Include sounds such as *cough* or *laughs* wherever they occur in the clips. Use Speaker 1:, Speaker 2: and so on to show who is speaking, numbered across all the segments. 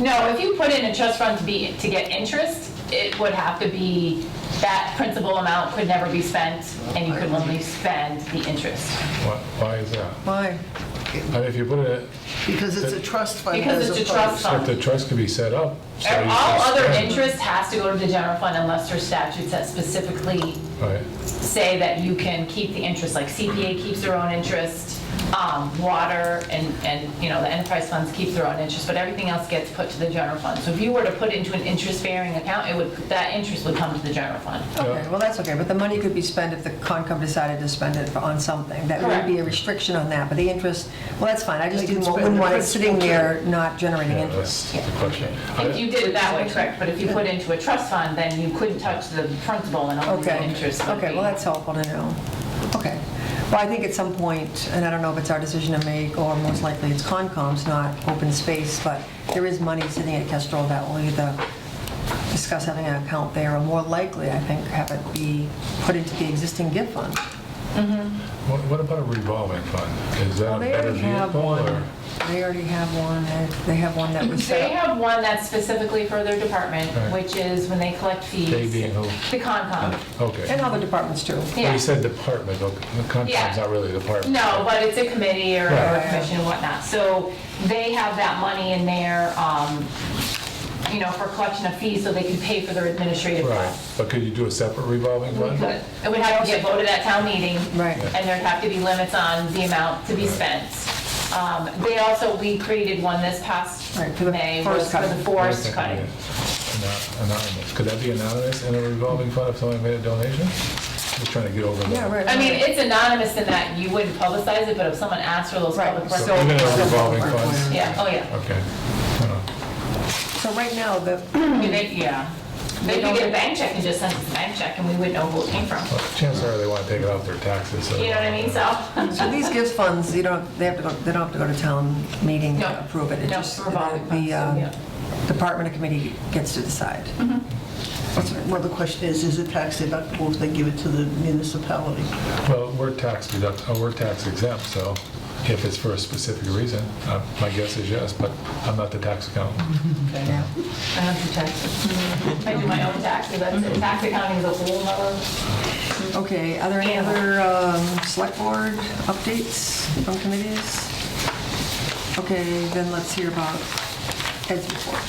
Speaker 1: No, if you put in a trust fund to be, to get interest, it would have to be, that principal amount could never be spent, and you could only spend the interest.
Speaker 2: Why why is that?
Speaker 3: Why?
Speaker 2: I mean, if you put it,
Speaker 3: Because it's a trust fund.
Speaker 1: Because
Speaker 3: as
Speaker 1: it's a
Speaker 3: opposed-
Speaker 1: trust
Speaker 2: if the
Speaker 1: fund.
Speaker 2: trust could be set up. so you
Speaker 1: All
Speaker 2: can
Speaker 1: other
Speaker 2: spend it,
Speaker 1: interest has to go to the general fund unless there's statutes that specifically
Speaker 2: Right,
Speaker 1: say that you can keep the interest, like CPA keeps their own interest, um, water and, and, you know, the enterprise funds keep their own interest, but everything else gets put to the general fund. So if you were to put into an interest-bearing account, it would, that interest would come to the general fund.
Speaker 3: Okay, well, that's okay, but the money could be spent if the Concom decided to spend it on something. That would be a restriction on that, but the interest, well, that's fine, I just
Speaker 4: They can
Speaker 3: didn't
Speaker 4: spend
Speaker 3: wouldn't
Speaker 4: the
Speaker 3: want it sitting
Speaker 4: principal
Speaker 3: there not generating
Speaker 2: yeah,
Speaker 3: interest.
Speaker 2: that's the question. I-
Speaker 1: If you did it that way, correct, but if you put into a trust fund, then you couldn't touch the principal and only the
Speaker 3: Okay,
Speaker 1: interest would
Speaker 3: okay, well,
Speaker 1: be.
Speaker 3: that's helpful to know. Okay. Well, I think at some point, and I don't know if it's our decision to make, or most likely it's Concom's, not open space, but there is money sitting at Kestrel that will either discuss having an account there, or more likely, I think, have it be put into the existing gift fund.
Speaker 2: What what about a revolving fund? Is that a
Speaker 3: Well, they
Speaker 2: better
Speaker 3: already have
Speaker 2: vehicle
Speaker 3: one.
Speaker 2: or?
Speaker 3: They already have one, and they have one that was
Speaker 1: They
Speaker 3: set up.
Speaker 1: have one that's specifically for their department,
Speaker 2: Right.
Speaker 1: which is when they collect fees.
Speaker 2: They being who?
Speaker 1: The Concom,
Speaker 3: And
Speaker 2: Okay.
Speaker 3: other departments too.
Speaker 2: Well,
Speaker 1: yeah.
Speaker 2: you said department, the contract's not really a department.
Speaker 1: No, but it's a committee or or a
Speaker 3: Right.
Speaker 1: commission and whatnot. So they have that money in there, um, you know, for collection of fees, so they can pay for their administrative
Speaker 2: Right,
Speaker 1: costs.
Speaker 2: but could you do a separate revolving
Speaker 1: We
Speaker 2: fund?
Speaker 1: could. It would have to get voted at town meeting.
Speaker 3: Right.
Speaker 1: And there'd have to be limits on the amount to be spent. Um, They also, we created one this past
Speaker 3: Right, for the
Speaker 1: May, was
Speaker 3: forest
Speaker 1: for the
Speaker 3: cutting.
Speaker 1: forest
Speaker 2: Okay,
Speaker 1: cutting.
Speaker 2: yeah. Ano- Anonymous, could that be anonymous in a revolving fund if someone made a donation? Just trying to get over that.
Speaker 3: Yeah, right.
Speaker 1: I mean, it's anonymous in that you wouldn't publicize it, but if someone asked for those
Speaker 3: Right.
Speaker 1: public
Speaker 2: So
Speaker 1: records.
Speaker 2: even a revolving
Speaker 3: so-
Speaker 2: fund,
Speaker 1: Yeah, oh yeah.
Speaker 2: okay. Uh-huh.
Speaker 3: So right now, the,
Speaker 1: I mean, they- Yeah. They could get a bank check and just send us a bank check and we wouldn't know who it came from.
Speaker 2: Well, Chances are they want to take it off their taxes. so-
Speaker 1: You know what I mean? So, *laughs*
Speaker 3: So these gift funds, you don't, they have to go, they don't have to go to town meeting
Speaker 1: No.
Speaker 3: to approve it? It
Speaker 1: No,
Speaker 3: just-
Speaker 1: revolving
Speaker 3: the,
Speaker 1: funds,
Speaker 3: um,
Speaker 1: yeah.
Speaker 3: Department or committee gets to decide. That's right.
Speaker 4: Well, the question is, is it tax deductible if they give it to the municipality?
Speaker 2: Well, we're tax deduct, oh, we're tax exempt, so if it's for a specific reason, uh, my guess is yes, but I'm not the tax accountant.
Speaker 3: Yeah.
Speaker 1: I don't do taxes. I do my own taxes, that's, it. tax accounting is a whole nother.
Speaker 3: Okay, are there any
Speaker 1: Animal.
Speaker 3: other um, select board updates from committees? Okay, then let's hear about Ed's report.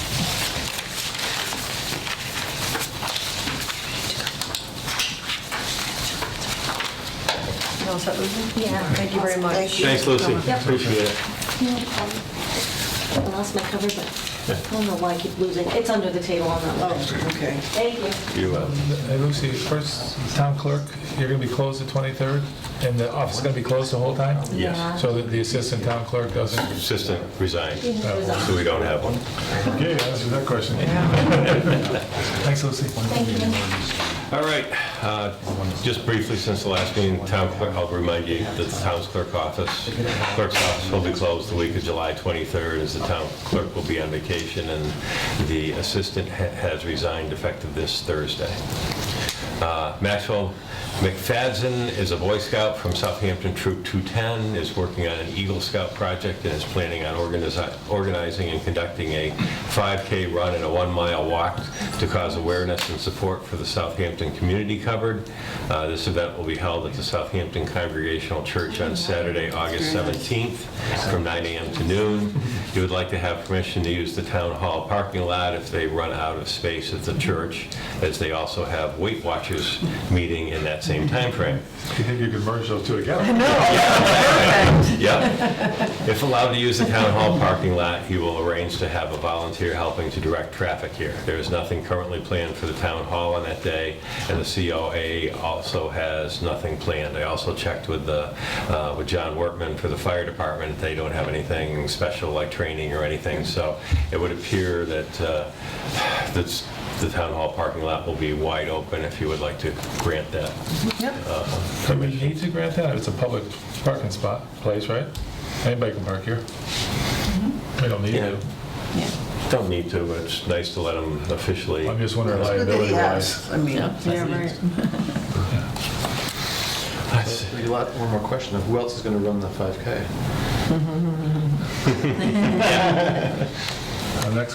Speaker 3: You all set, Lucy?
Speaker 5: Yeah.
Speaker 3: Thank you very much.
Speaker 5: Thank you.
Speaker 6: Thanks, Lucy.
Speaker 5: Yep.
Speaker 6: Appreciate it.
Speaker 5: No problem. I lost my cover, but I don't know why I keep losing. It's under the table on that one.
Speaker 4: Oh, okay.
Speaker 5: Thank you.
Speaker 6: You, uh,
Speaker 2: Hey Lucy, first, town clerk, you're going to be closed the 23rd, and the office is going to be closed the whole time?
Speaker 6: Yes.
Speaker 1: Uh-huh.
Speaker 5: Yeah.
Speaker 2: So that the assistant town clerk doesn't?
Speaker 6: Assistant resigned,
Speaker 5: Resigned.
Speaker 6: so we don't have one.
Speaker 2: Okay, answer that question. *laughs* Thanks, Lucy.
Speaker 5: Thank you.
Speaker 6: All right, uh, just briefly, since the last meeting, town clerk, I'll remind you that the town's clerk office, clerk's office will be closed the week of July 23rd, as the town clerk will be on vacation, and the assistant ha- has resigned effective this Thursday. Uh, Maxwell McFadden is a Boy Scout from Southampton Troop 210, is working on an Eagle Scout project, and is planning on organizi- organizing and conducting a 5K run and a one-mile walk to cause awareness and support for the Southampton community covered. Uh, This event will be held at the Southampton Congregational Church on Saturday, August 17th, from 9 a.m. to noon. You would like to have permission to use the town hall parking lot if they run out of space at the church, as they also have Weight Watchers meeting in that same timeframe.
Speaker 2: Do you think you could merge those two together?
Speaker 6: *laughs* Yeah. If allowed to use the town hall parking lot, he will arrange to have a volunteer helping to direct traffic here. There is nothing currently planned for the town hall on that day, and the COA also has nothing planned. I also checked with the, uh, with John Workman for the fire department. They don't have anything special like training or anything, so it would appear that, uh, that's, the town hall parking lot will be wide open if you would like to grant that uh,
Speaker 2: Do we
Speaker 6: permission.
Speaker 2: need to grant that? It's a public parking spot, place, right? Anybody can park here.
Speaker 1: Mm-hmm.
Speaker 2: We don't need to.
Speaker 6: Don't need to, but it's nice to let them officially.
Speaker 2: I'm just wondering
Speaker 4: Good that he
Speaker 2: liability wise.
Speaker 4: asked. I mean,
Speaker 3: Yeah, right.
Speaker 7: Maybe lot- One more question, who else is going to run the 5K?
Speaker 2: Our next